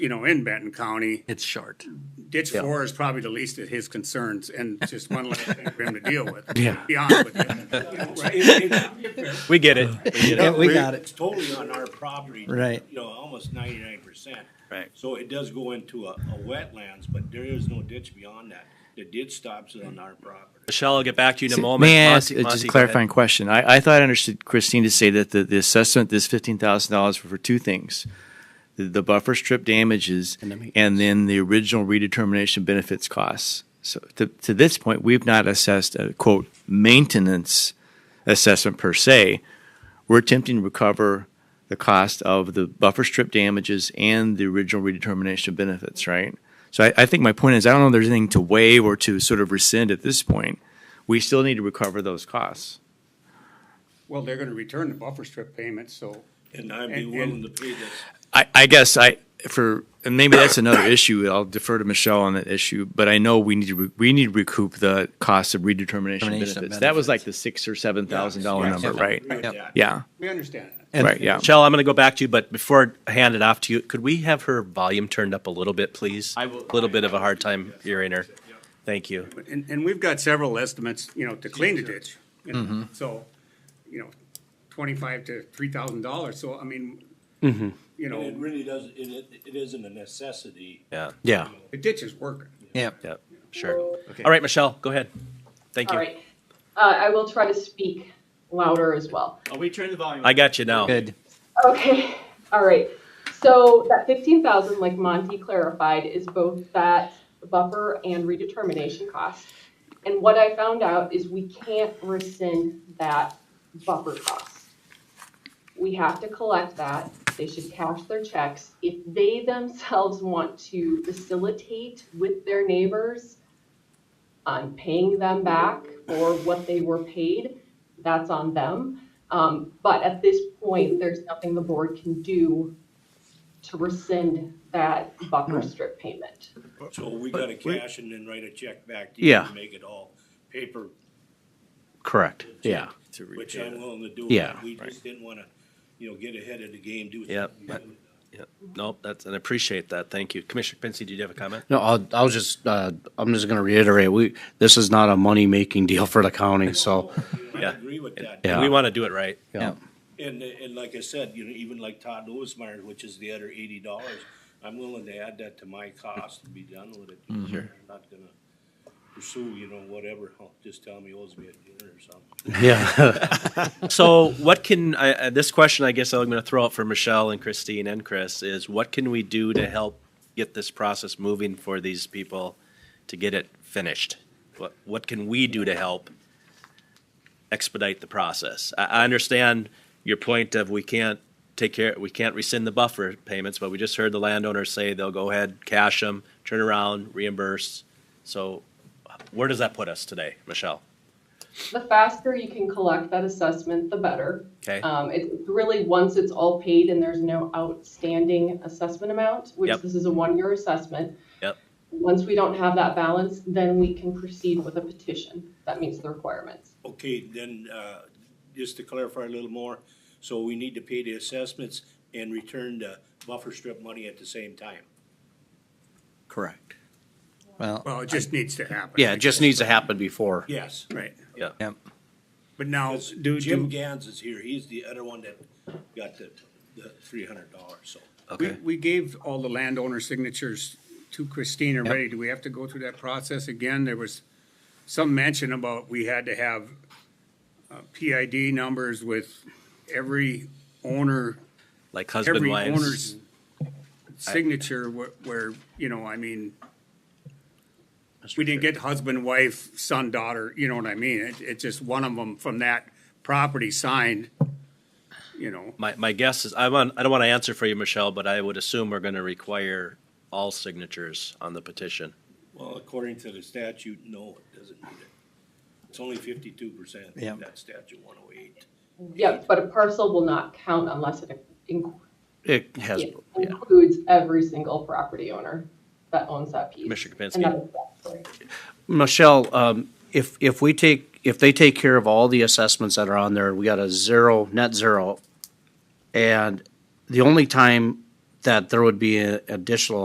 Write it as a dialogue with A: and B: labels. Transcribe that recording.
A: you know, in Benton County.
B: It's short.
A: Ditch four is probably the least of his concerns and just one less thing for him to deal with.
B: Yeah.
A: Be honest with you. You know, right?
C: We get it.
B: Yeah, we got it.
D: It's totally on our property.
B: Right.
D: You know, almost ninety-nine percent.
C: Right.
D: So it does go into a, a wetlands, but there is no ditch beyond that. The ditch stops it on our property.
C: Michelle, I'll get back to you in a
E: See,
C: moment.
E: May I ask
C: Monty-
E: uh, just a
C: Monty, go ahead.
E: clarifying question? I, I thought I understood Christine to say that the, the assessment, this fifteen thousand dollars for two things. The, the buffer strip damages
B: And the maintenance.
E: and then the original redetermination benefits costs. So to, to this point, we've not assessed a quote maintenance assessment per se. We're attempting to recover the cost of the buffer strip damages and the original redetermination benefits, right? So I, I think my point is, I don't know if there's anything to waive or to sort of rescind at this point we still need to recover those costs.
A: Well, they're gonna return the buffer strip payments, so.
D: And I'd be
A: And-
D: willing to pay this.
E: I, I guess I, for, and maybe that's another issue, I'll defer to Michelle on that issue, but I know we need to, re- we need to recoup the cost of redetermination
B: Termination of
E: benefits. That was like
B: benefits.
E: the six or seven thousand dollar number, right?
D: Agree with
B: Yep.
D: that.
E: Yeah,
A: We understand that.
B: And-
E: right, yeah.
C: Michelle, I'm going to go back to you, but before I hand it off to you, could we have her volume turned up a little bit, please? I will. A little bit of a hard time hearing her. Thank you.
A: And, and we've got several estimates, you know, to clean the ditch. you know,
B: Mm-hmm.
A: So, you know, twenty-five to three thousand dollars, so I mean,
B: Mm-hmm.
A: you
D: And it
A: know,
D: really does, it, it- it isn't a necessity.
C: Yeah.
B: Yeah.
A: the ditch is working.
B: Yeah.
C: Yeah. Sure. All right, Michelle, go ahead. Thank
F: All
C: you.
F: right. Uh, I will try to speak louder as well.
D: Are Oh, we turning the volume?
C: I got you now.
B: Good.
F: Okay, all right. So that fifteen thousand, like Monty clarified, is both that buffer and redetermination cost. And what I found out is we can't rescind that buffer cost. We have to collect that. They should cash their checks. If they themselves want to facilitate with their neighbors on paying them back for what they were paid, that's on them. Um, but at this point, there's nothing the board can do to rescind that buffer strip payment.
D: So we gotta cash and then write a check back to you
C: Yeah.
D: and make it all paper,
C: Correct. Yeah.
D: which I'm willing to do.
C: Yeah.
D: We just didn't wanna, you know, get ahead of the game, do.
C: Yep. Nope, that's, and I appreciate that. Thank you. Commissioner Pinsky, did you have a comment?
G: No, I'll, I'll just, uh, I'm just gonna reiterate, we, this is not a money-making deal for the county, so,
D: I
C: Yeah.
D: agree with that.
G: Yeah.
C: We want to do it right.
G: yeah.
D: And, and like I said, you know, even like Todd Lewismeyer, which is the other eighty dollars, I'm willing to add that to my cost to be done with it. I'm not gonna pursue, you know, whatever, Oh, just tell me he owes me a dinner or something.
C: So what can, I, I- this question, I guess I'm going to throw out for Michelle and Christine and Chris, is what can we do to help get this process moving for these people to get it finished? What, what can we do to help expedite the process? I, I understand your point of we can't take care, we can't rescind the buffer payments, but we just heard the landowner say they'll go ahead, cash them, turn around, reimburse. So where does that put us today, Michelle?
F: The faster you can collect that assessment, the better.
C: Okay?
F: Um, it's really, once it's all paid and there's no outstanding assessment amount, which
C: Yep.
F: this is a one-year assessment.
C: Yep.
F: Once we don't have that balance, then we can proceed with a petition that meets the requirements.
D: Okay, then, uh, just to clarify a little more, so we need to pay the assessments and return the buffer strip money at the same time.
B: Correct. Well,
A: Well, it just needs to happen.
G: Yeah, it just needs to happen before.
D: Yes.
A: Right,
B: yeah.
A: but now,
D: Because
A: do,
D: Jim
A: do,
D: Gans is here, he's the other one that got the, the three hundred dollars, so.
A: we, we gave all the landowner signatures to Christine already. Do we have to go through that process again? There was some mention about we had to have uh, PID numbers with every owner
C: Like husband,
A: every
C: wives.
A: owner's signature where, where, you know, I mean, we didn't get husband, wife, son, daughter, you know what I mean? It, it's just one of them from that property signed, you know,
C: My, my guess is, I want, I don't want to answer for you, Michelle, but I would assume we're going to require all signatures on the petition.
D: Well, according to the statute, no, it doesn't need it. It's only fifty-two percent,
B: Yeah.
D: that statute one oh eight.
F: Yep, but a parcel will not count unless it inc-
C: It has.
F: It includes every single property owner that owns that piece.
C: Commissioner Kapinski.
F: And that is statutory.
G: Michelle, um, if, if we take, if they take care of all the assessments that are on there, we got a zero, net zero. And the only time that there would be a- additional